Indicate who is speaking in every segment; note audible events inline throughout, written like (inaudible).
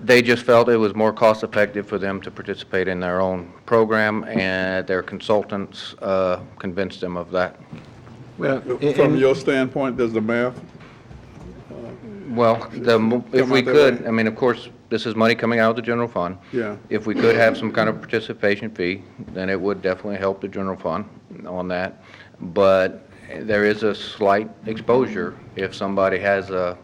Speaker 1: They just felt it was more cost-effective for them to participate in their own program, and their consultants uh, convinced them of that.
Speaker 2: Well, and-
Speaker 3: From
Speaker 2: and-
Speaker 3: your standpoint, does the math,
Speaker 1: Well, the, mo- if
Speaker 3: Come
Speaker 1: we
Speaker 3: out that
Speaker 1: could,
Speaker 3: way.
Speaker 1: I mean, of course, this is money coming out of the general fund.
Speaker 3: Yeah.
Speaker 1: If we could have some kind of participation fee, then it would definitely help the general fund on that. But there is a slight exposure if somebody has a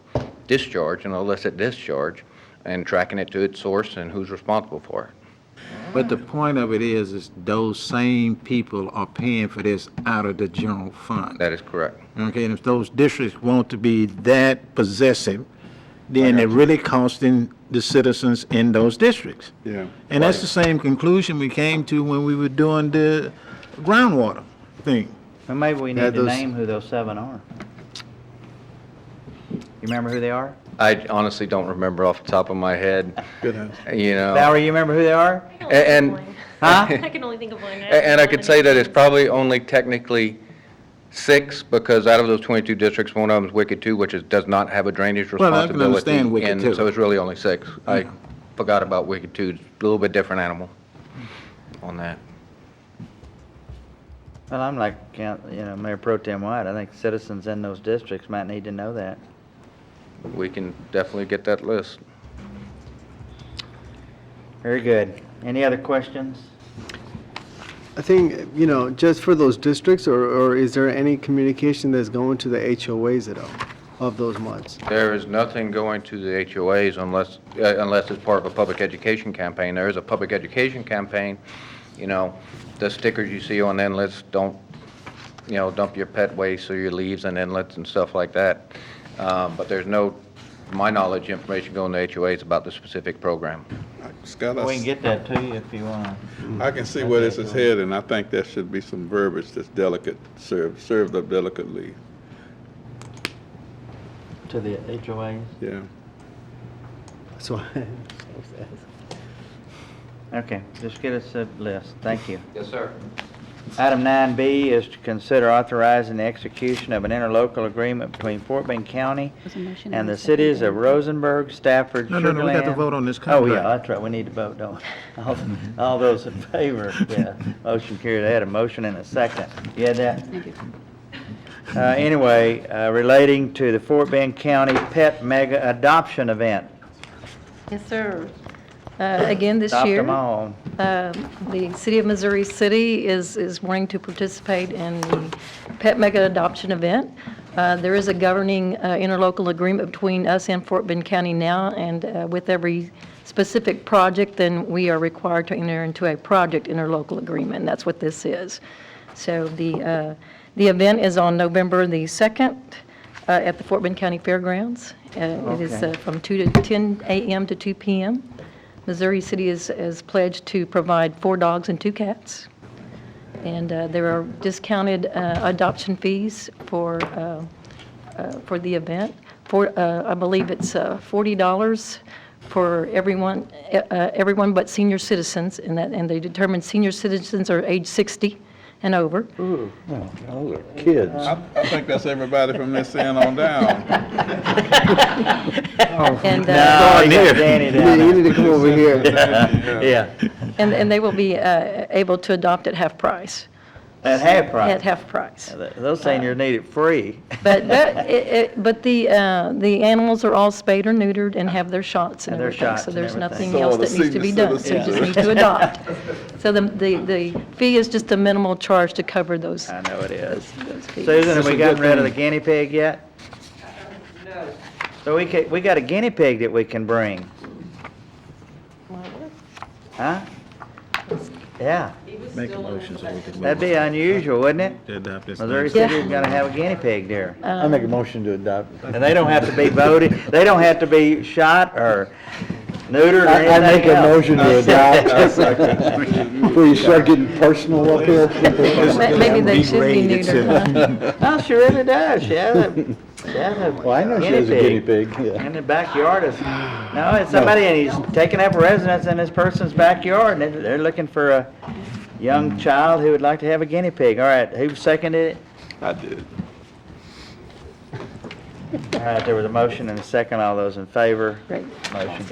Speaker 1: discharge, an illicit discharge, and tracking it to its source and who's responsible for it.
Speaker 2: but the point of it is, is those same people are paying for this out of the general fund.
Speaker 1: That is correct.
Speaker 2: Okay, and if those districts want to be that possessive, then it really costing the citizens in those districts.
Speaker 3: yeah.
Speaker 2: And that's the same conclusion we came to when we were doing the groundwater thing.
Speaker 4: Well, maybe we
Speaker 5: Yeah,
Speaker 4: need to
Speaker 5: those-
Speaker 4: name who those seven are. You remember who they are?
Speaker 1: I honestly don't remember off the top of my head,
Speaker 3: Good answer.
Speaker 1: you
Speaker 5: Oh.
Speaker 1: know.
Speaker 4: Valerie, you remember who they are?
Speaker 1: A- And,
Speaker 4: Huh?
Speaker 6: I can only think of
Speaker 1: (laughs)
Speaker 6: one.
Speaker 1: A- And I could say that it's probably only technically six, because out of those 22 districts, one of them's Wicked Two, which is, does not have a drainage
Speaker 2: Well, I
Speaker 1: responsibility.
Speaker 2: can understand Wicked Two.
Speaker 1: And so it's really only six. I forgot about Wicked Two, it's a little bit different animal on that.
Speaker 4: Well, I'm like, Count- you know, Mayor Pro Tem White, I think citizens in those districts might need to know that.
Speaker 1: We can definitely get that list.
Speaker 4: Very good. Any other questions?
Speaker 5: I think, you know, just for those districts, or, or is there any communication that's going to the HOAs at all of those months?
Speaker 1: There is nothing going to the HOAs unless, uh, unless it's part of a public education campaign. There is a public education campaign, you know, the stickers you see on inlets, don't, you know, dump your pet waste or your leaves in inlets and stuff like that. Um, But there's no, to my knowledge, information going to HOAs about the specific program.
Speaker 3: Scott,
Speaker 4: We can
Speaker 3: I,
Speaker 4: get that to you if you want.
Speaker 3: I can see where this is headed, and I think there should be some verbiage that's delicate, served, served up delicately,
Speaker 4: To the HOAs?
Speaker 3: yeah.
Speaker 5: So, (laughs)
Speaker 4: Okay, just get us a list. Thank you.
Speaker 1: Yes, sir.
Speaker 4: Item 9B is to consider authorizing the execution of an interlocal agreement between Fort Bend County
Speaker 7: There's a motion
Speaker 4: and
Speaker 7: a
Speaker 4: the
Speaker 7: second.
Speaker 4: cities of Rosenberg, Stafford,
Speaker 2: No,
Speaker 4: Sugarland.
Speaker 2: no, no, we got to vote on this
Speaker 4: Oh, yeah,
Speaker 2: contract.
Speaker 4: that's right, we need to vote, don't we? All- All those in favor, yeah. Motion carried, I had a motion and a second. You had that?
Speaker 7: I do.
Speaker 4: Uh, Anyway, uh, relating to the Fort Bend County Pet Mega Adoption Event.
Speaker 7: Yes, sir. Uh, Again, this
Speaker 4: Adopt
Speaker 7: year.
Speaker 4: them all.
Speaker 7: uh, The City of Missouri City is, is wanting to participate in the Pet Mega Adoption Event. Uh, There is a governing uh, interlocal agreement between us and Fort Bend County now, and uh, with every specific project, then we are required to enter into a project interlocal agreement, and that's what this is. So the, uh, the event is on November the 2nd uh, at the Fort Bend County Fairgrounds. Uh, It is
Speaker 4: Okay.
Speaker 7: uh, from 2 to 10 a.m. to 2 p.m. Missouri City is, is pledged to provide four dogs and two cats. And uh, there are discounted uh, adoption fees for, uh, uh, for the event. For, uh, I believe it's uh, $40 for everyone, uh, uh, everyone but senior citizens, and that, and they determine senior citizens are age 60 and over.
Speaker 3: I, I think that's everybody from this end on down.
Speaker 7: (laughs) And, uh,
Speaker 4: No, you got Danny down
Speaker 5: you
Speaker 4: there.
Speaker 5: need to come over here.
Speaker 4: (laughs) Yeah,
Speaker 7: And, and they will be uh, able to adopt at half price,
Speaker 4: at half price.
Speaker 7: at half price.
Speaker 4: Th- Those seniors need it free.
Speaker 7: But, that- it- it- but the, uh, the animals are all spayed or neutered and have their shots and
Speaker 4: And their
Speaker 7: everything.
Speaker 4: shots
Speaker 7: So
Speaker 4: and
Speaker 7: there's
Speaker 4: everything.
Speaker 7: nothing
Speaker 3: So
Speaker 7: else
Speaker 3: the
Speaker 7: that needs to be
Speaker 3: senior
Speaker 7: done. They
Speaker 3: citizens
Speaker 7: just
Speaker 3: are-
Speaker 7: need to adopt.
Speaker 3: (laughs)
Speaker 7: So the, the the fee is just a minimal charge to cover those,
Speaker 4: I know it is.
Speaker 7: those fees.
Speaker 4: Susan, have we gotten rid of the guinea pig yet? No. So we ca we got a guinea pig that we can bring, huh? Yeah,
Speaker 2: Make a motion so we can move
Speaker 4: that'd be unusual, wouldn't it?
Speaker 2: to adopt this.
Speaker 4: Missouri
Speaker 2: thing.
Speaker 4: City's gonna have a guinea pig there.
Speaker 5: I make a motion to adopt.
Speaker 4: And they don't have to be voted, they don't have to be shot or neutered or anything else. (laughs)
Speaker 5: to
Speaker 3: adopt.
Speaker 5: Before you start getting personal up here.
Speaker 7: Ma- Maybe they should be
Speaker 2: Re-rated
Speaker 7: neutered.
Speaker 2: citizens.
Speaker 7: huh?
Speaker 4: Oh, she really does, she has a, she has a
Speaker 5: Well, I know she was a guinea pig, yeah.
Speaker 4: In the backyard is, no,
Speaker 5: (sighs)
Speaker 4: it's somebody, and he's taking up residence in this person's backyard, and they're- they're looking for a young child who would like to have a guinea pig. All right, who seconded it?
Speaker 3: I did.
Speaker 4: All right, there was a motion and a second. All those in favor?
Speaker 7: Great.
Speaker 4: Motion